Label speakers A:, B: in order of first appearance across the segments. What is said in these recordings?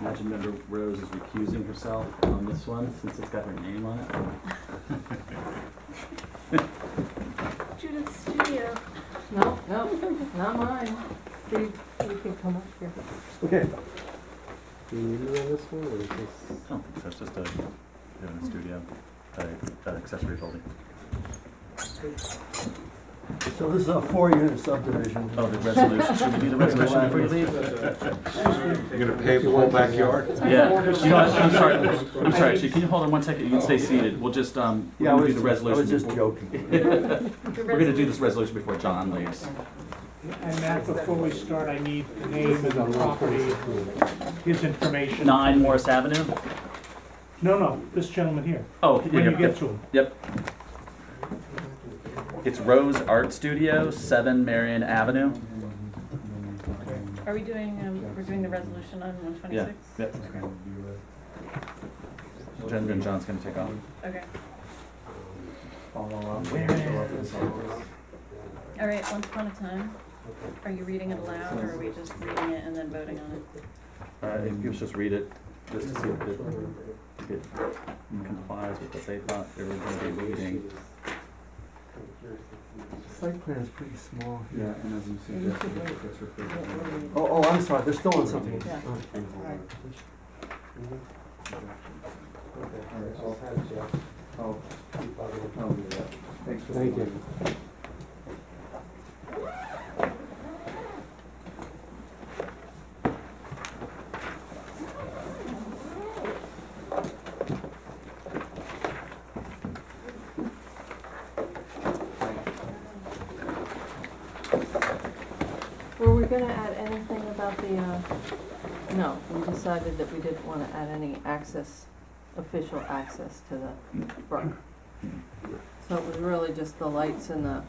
A: Imagine member Rose is recusing herself on this one since it's got her name on it.
B: Judith's studio.
C: No, no, not mine. Please, you can come up here.
D: Okay. Do you need it on this one, or is this?
A: I don't think so, it's just a, they're in a studio, a, a accessory building.
E: So this is a four-unit subdivision.
A: Oh, the resolution, should we do the resolution before you leave?
F: You're gonna pave the whole backyard?
A: Yeah, you know, what, I'm sorry, I'm sorry, actually, can you hold on one second, you can stay seated, we'll just, um, we're
E: Yeah, I
A: gonna
E: was,
A: do the
E: I was
A: resolution
E: just
A: before.
E: joking.
A: We're gonna do this resolution before John leaves.
G: And Matt, before we start, I need the name of the property, his information.
A: Nine Morris Avenue?
G: No, no, this gentleman here,
A: Oh,
G: when
A: yeah,
G: you
A: yeah.
G: get to him.
A: It's Rose Art Studio, seven Marion Avenue.
B: Are we doing, um, we're doing the resolution on one twenty-six?
A: Yep. Jen and John's gonna take off.
B: Okay,
E: Follow
B: all right, once upon a time. Are you reading it aloud or are we just reading it and then voting on it?
A: Uh, if you just read it, just to see if it, if it complies with what they thought they were gonna be reading.
E: Site plan is pretty small
D: Yeah,
E: here.
D: and as you
C: suggested,
D: that's referred
E: Oh, oh, I'm sorry, they're still on something.
B: Yeah.
E: Oh.
D: Thanks for
E: Thank you.
C: Were we gonna add anything about the, uh, no, we decided that we didn't wanna add any access, official access to the brook. So it was really just the lights and the,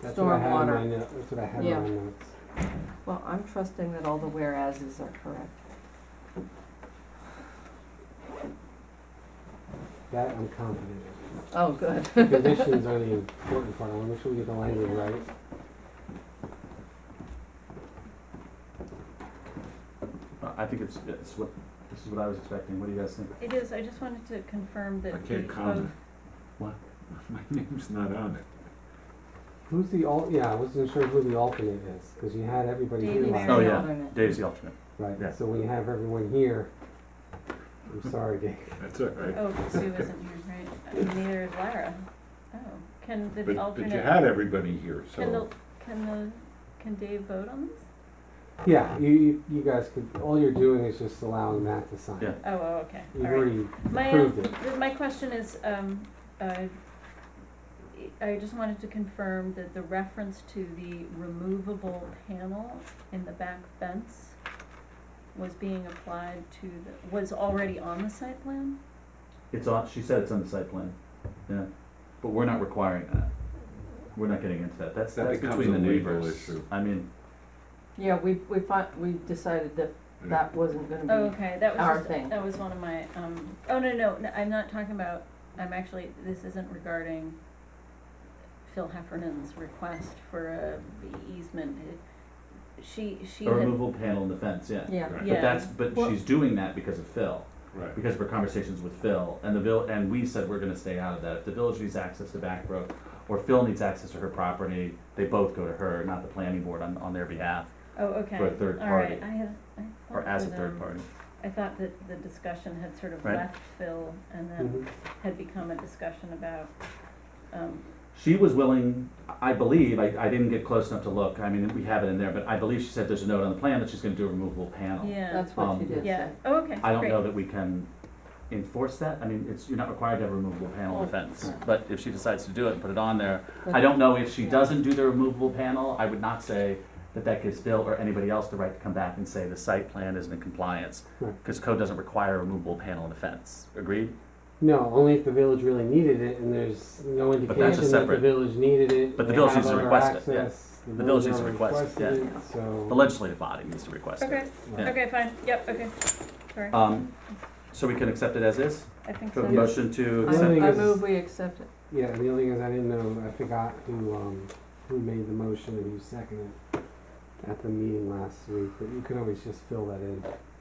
D: That's what I had in
C: Stormwater.
D: my notes, that's what I had in
C: Yeah.
D: my notes.
C: well, I'm trusting that all the whereases are correct.
D: That I'm confident in.
C: Oh, good.
D: The Conditions are the important part, I wanna make sure we get the language right.
A: Uh, I think it's, it's what, this is what I was expecting, what do you guys think?
B: It is, I just wanted to confirm that.
F: I can't
B: we
F: comment.
B: both-
F: My name's not on it.
D: Who's the al, yeah, I wasn't sure who the alternate is, cause you had everybody here
B: David
D: last
A: Oh,
B: Barry.
A: yeah.
C: Alternate.
A: Dave's the alternate. Yeah.
D: Right, so when you have everyone here, I'm sorry, Dave.
F: That's it, right?
B: Oh, Sue isn't here, right? And Neither is Lara. Oh, can
F: But,
B: the
F: but
B: alternate?
F: you had everybody here,
B: Can the,
F: so.
B: can the, can Dave vote on this?
D: Yeah, you, you, you guys could, all you're doing is just allowing Matt to sign.
A: Yeah.
B: Oh, oh, okay, all
D: You've
B: right.
D: already
B: My,
D: approved
B: um, th- my question is, um, uh, I just wanted to confirm that the reference to the removable panel in the back fence was being applied to the, was already on the site plan?
A: It's on, she said it's on the site plan, yeah, but we're not requiring that. We're not getting into that, that's,
F: That
A: that's
F: becomes
A: between the
F: a legal
A: neighbors.
F: issue.
A: I mean,
C: Yeah, we, we fi- we decided that that wasn't
A: Mm-hmm.
C: gonna be.
B: Oh, okay, that
C: Our
B: was
C: thing.
B: just, that was one of my, um, oh, no, no, no, I'm not talking about, I'm actually, this isn't regarding Phil Heffernan's request for a easement. It- She, she
A: a
B: had,
A: removable panel in the fence, yeah.
C: Yeah,
F: Right.
A: But
B: yeah.
A: that's, but
C: Well-
A: she's doing that because of Phil,
F: Right.
A: because of her conversations with Phil, and the vill, and we said we're gonna stay out of that. If the village needs access to Back Brook, or Phil needs access to her property, they both go to her, not the planning board on, on their behalf,
B: Oh, okay.
A: For a third
B: All right.
A: party.
B: I had, I thought.
A: or as a
B: that, um,
A: third party.
B: I thought that the discussion had sort of
A: Right.
B: left Phil and then
D: Mhm.
B: had become a discussion about, um,
A: She was willing, I believe, I, I didn't get close enough to look, I mean, we have it in there, but I believe she said there's a note on the plan that she's gonna do a removable panel.
B: yeah,
C: that's what she
A: Um,
C: did
B: yeah,
C: say.
B: oh, okay, great.
A: I don't know that we can enforce that, I mean, it's, you're not required to have a removable panel in the fence, but if she decides to do it and put it on there, I don't know if she doesn't do the removable panel, I would not say that that gives Bill or anybody else the right to come back and say the site plan isn't in compliance,
D: Right.
A: because code doesn't require a removable panel in the fence, agreed?
D: No, only if the village really needed it, and there's no indication that the
A: separate-
D: village needed it.
A: But the
D: they
A: village
D: have
A: needs to
D: other
A: request it, yeah.
D: access,
A: The village needs to
D: already
A: request it,
D: requested
C: yeah.
D: it, So.
A: The legislative body needs to request
B: Okay,
A: it. Yeah.
B: okay, fine, yep, okay, sorry,
A: Um, so we can accept it as is,
B: I think
A: so a
B: so.
A: motion to
C: I,
A: accept,
D: Really?
C: I move we accept it.
D: Yeah, and the other thing is, I didn't know, I forgot who, um, who made the motion and who seconded it at the meeting last week, but you can always just fill that in.